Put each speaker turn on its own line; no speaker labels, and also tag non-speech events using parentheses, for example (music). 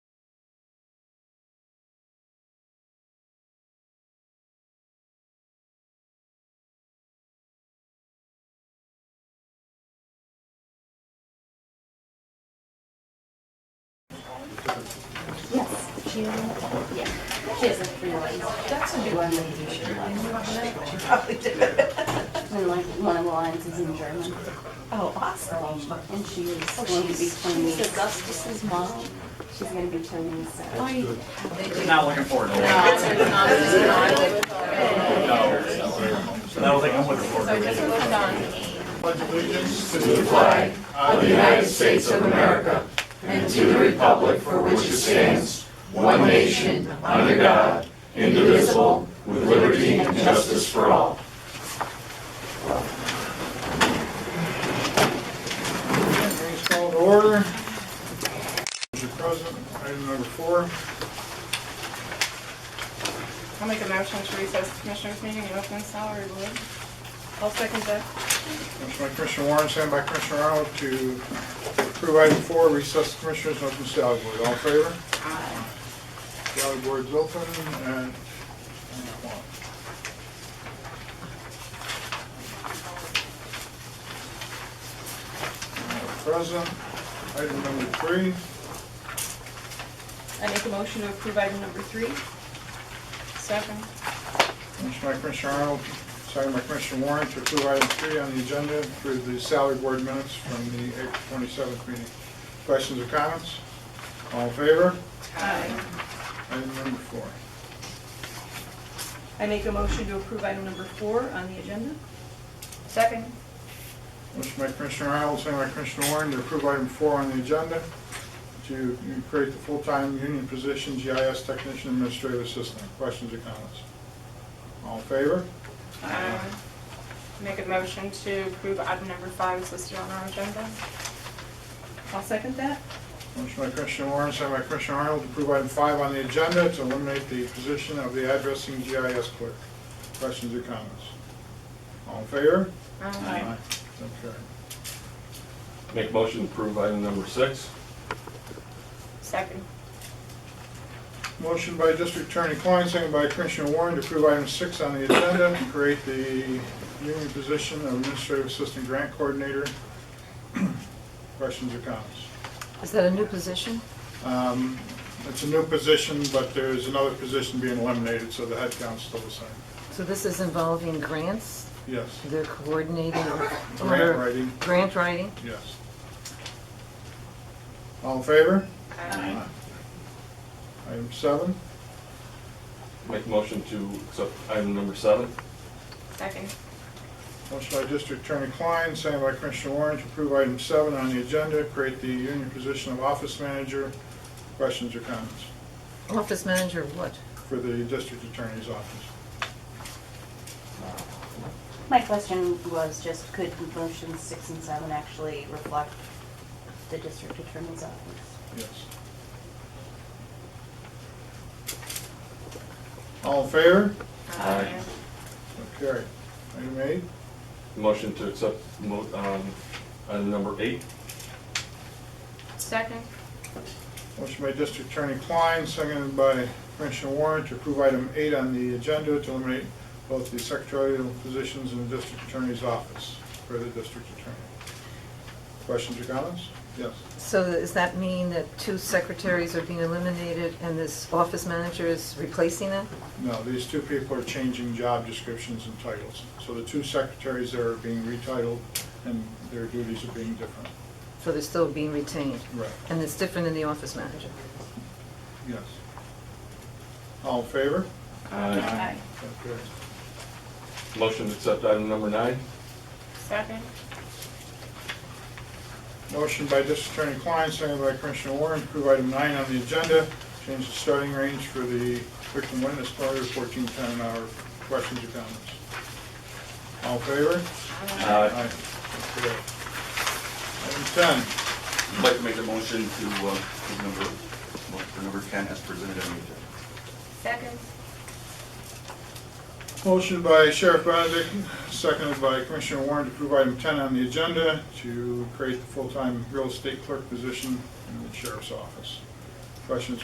Yeah, she has a three lines.
That's a new one that you should like. She probably did.
And like, one of the lines is in German,
Oh, awesome.
and she is going to be playing. She's Augustus's mom. She's gonna be turning seven.
Not looking forward to it. No, I don't think I'm looking forward to it.
Meeting's called to order. Mr. President, item number four.
I'll make a motion to recess the commissioners meeting and open salary board. I'll second that.
Motion by Commissioner Warren, second by Commissioner Arnold to approve item four, recess the commissioners, open salary board. All in favor? Salary board's open and. President, item number three.
I make a motion to approve item number three. Second.
Motion by Commissioner Arnold, second by Commissioner Warren to approve item three on the agenda for the salary board minutes from the April twenty-seventh meeting. Questions or comments? All in favor?
Aye.
Item number four.
I make a motion to approve item number four on the agenda. Second.
Motion by Commissioner Arnold, second by Commissioner Warren to approve item four on the agenda to create the full-time union position GIS technician administrative assistant. Questions or comments? All in favor?
Aye. Make a motion to approve item number five is listed on our agenda. I'll second that.
Motion by Commissioner Warren, second by Commissioner Arnold, to approve item five on the agenda to eliminate the position of the addressing GIS clerk. Questions or comments? All in favor?
Aye.
So carried.
Make a motion to approve item number six.
Second.
Motion by District Attorney Klein, second by Commissioner Warren, to approve item six on the agenda, to create the union position of administrative assistant grant coordinator. (clears throat) Questions or comments?
Is that a new position?
Um, It's a new position, but there's another position being eliminated, so the headcount's still the same.
So this is involving grants?
Yes.
They're coordinating?
Grant writing.
Grant writing?
Yes. All in favor?
Aye.
Item seven,
Make a motion to accept item number seven.
Second.
motion by District Attorney Klein, second by Commissioner Warren to approve item seven on the agenda, create the union position of office manager. Questions or comments
Office manager of what?
for the district attorney's office?
My question was just, could motions six and seven actually reflect the district attorney's office?
Yes. All in favor?
Aye.
So carried. Item eight,
Motion to accept mo- um, item number eight.
Second.
motion by District Attorney Klein, seconded by Commissioner Warren to approve item eight on the agenda to eliminate both the secretarial positions in the district attorney's office for the district attorney. Questions or comments? Yes.
So does that mean that two secretaries are being eliminated and this office manager is replacing them?
No, these two people are changing job descriptions and titles. So the two secretaries there are being retitled and their duties are being different.
So they're still being retained?
Right.
And it's different than the office manager?
Yes. All in favor?
Aye.
So carried.
Motion to accept item number nine.
Second.
Motion by District Attorney Klein, seconded by Commissioner Warren, to approve item nine on the agenda, change the starting range for the victim witness lawyer to fourteen ten an hour. Questions or comments? All in favor?
Aye.
So carried. Item ten,
I'd like to make a motion to, uh, approve number, for number 10 as presented on the agenda.
Second.
motion by Sheriff Benedict, seconded by Commissioner Warren, to approve item ten on the agenda to create the full-time real estate clerk position in the sheriff's office. Questions